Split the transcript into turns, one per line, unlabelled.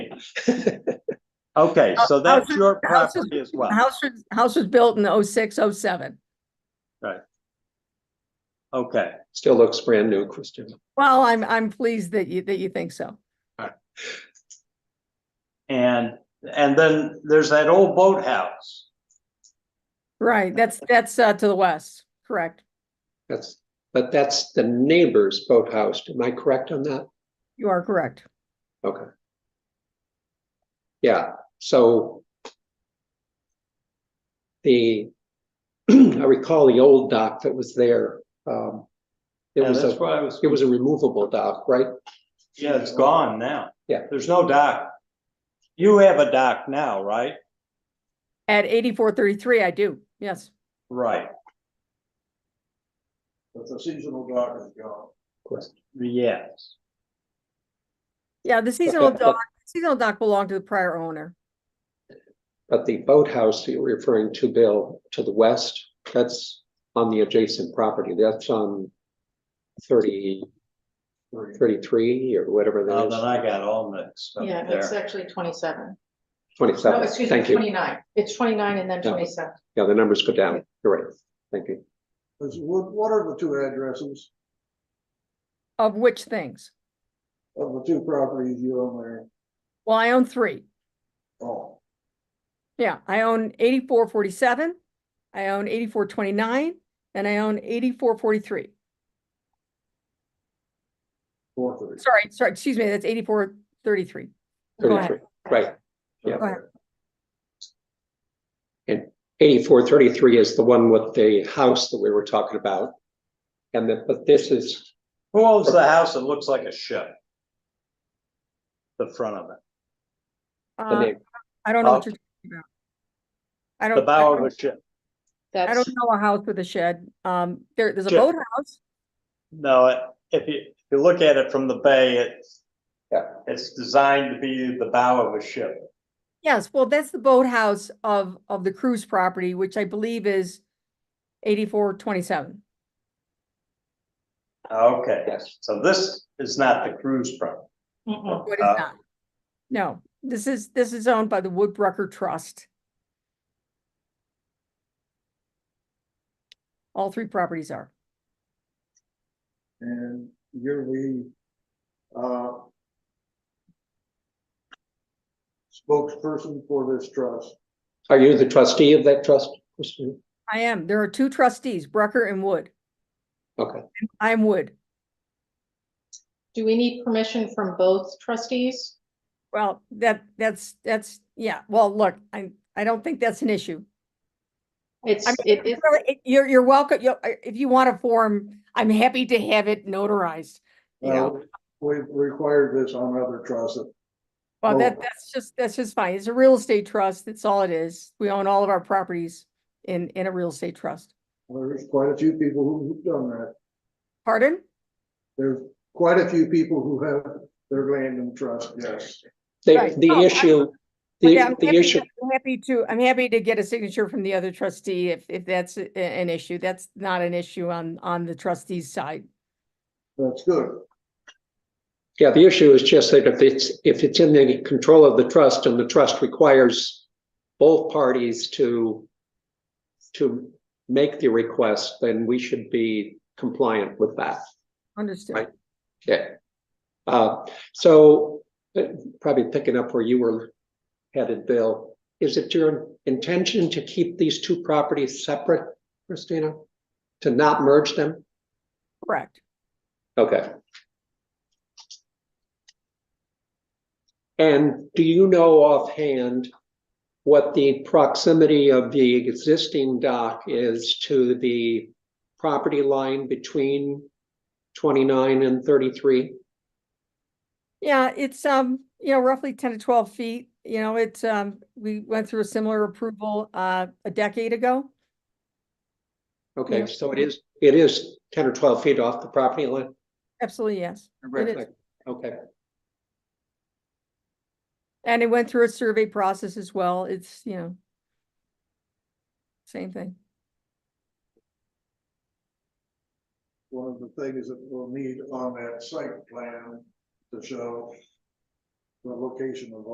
Okay,
Uh,
so
Houses-
that's your
houses-
property as well.
The house was, house was built in oh six, oh seven.
Okay,
Still looks brand new, Christian.
Well, I'm, I'm pleased that you, that you think so.
and, and then there's that old boathouse.
Right, that's, that's uh, to the west, correct.
That's, but that's the neighbor's boathouse. Am I correct on that?
You are correct.
Okay. Yeah, so the, I recall the old dock that was there. um, It
Yeah,
was
that's
a,
why I was,
it was a removable dock, right?
yeah, it's gone now.
Yeah.
There's no dock. You have a dock now, right?
At eighty-four thirty-three, I do, yes.
Right,
But the seasonal dock is gone.
yes.
Yeah, the seasonal
but-
dock, seasonal dock belonged to the prior owner.
But the boathouse that you're referring to, Bill, to the west, that's on the adjacent property. That's on thirty, thirty-three or whatever
Now
that
then
is.
I got all mixed up
Yeah, it's
there.
actually twenty-seven. No,
Twenty-seven,
excuse me,
thank you.
twenty-nine. It's twenty-nine and then
Yeah.
twenty-seven.
Yeah, the numbers go down. You're right. Thank you.
Is- What, what are the two addresses
Of which things?
of the two properties you own there?
Well, I own three.
Oh,
Yeah, I own eighty-four forty-seven, I own eighty-four twenty-nine, and I own eighty-four forty-three.
four thirty.
Sorry, sorry, excuse me, that's eighty-four thirty-three. Go ahead.
Thirty-three, right.
Go ahead.
Eighty-four thirty-three is the one with the house that we were talking about. And that, but this is,
Who owns the house that looks like a ship? The front of it,
the
Uh,
name.
I don't know
Oh.
what you're talking about. I don't.
the
I
bow
don't-
of a ship.
I
That's,
don't know a house with a shed. Um, there, there's a
Shed.
boathouse.
No, it- if you, if you look at it from the bay, it's,
Yeah.
it's designed to be the bow of a ship.
Yes, well, that's the boathouse of, of the cruise property, which I believe is eighty-four twenty-seven.
Okay,
Yes.
so this is not the cruise property.
Mm-mm.
What is
Uh,
that? No, this is, this is owned by the Woodbrucker Trust. All three properties are.
And you're the, uh, spokesperson for this trust.
Are you the trustee of that trust? Christine?
I am, there are two trustees, Brucker and Wood.
Okay,
I'm Wood.
do we need permission from both trustees?
Well, that, that's, that's, yeah, well, look, I, I don't think that's an issue.
It's,
I mean,
it is,
really, it- you're, you're welcome, you, if you want a form, I'm happy to have it notarized. You know,
Well, We've Uh, required this on other trusts.
well, that,
oh.
that's just, that's just fine. It's a real estate trust. That's all it is. We own all of our properties in, in a real estate trust.
There's quite a few people who've done that.
Pardon?
There's quite a few people who have their land in trust, yes.
the,
Right. Oh,
the
I-
issue,
But
the,
I'm
the
happy-
issue,
I'm Happy to, I'm happy to get a signature from the other trustee if, if that's a- an issue. That's not an issue on, on the trustee's side.
That's good.
yeah, the issue is just that if it's, if it's in the control of the trust and the trust requires both parties to to make the request, then we should be compliant with that.
Understood.
Right. Yeah. Uh, so uh, probably picking up where you were headed, Bill, is it your intention to keep these two properties separate, Christina? To not merge them?
Correct.
Okay. And do you know offhand what the proximity of the existing dock is to the property line between twenty-nine and thirty-three?
Yeah, it's, um, you know, roughly ten to twelve feet, you know, it's, um, we went through a similar approval, uh, a decade ago. Yeah.
Okay, so it is, it is ten or twelve feet off the property line?
Absolutely, yes. It is.
Okay,
And it went through a survey process as well. It's, you know, same thing.
one of the things that we'll need on that site plan to show the location of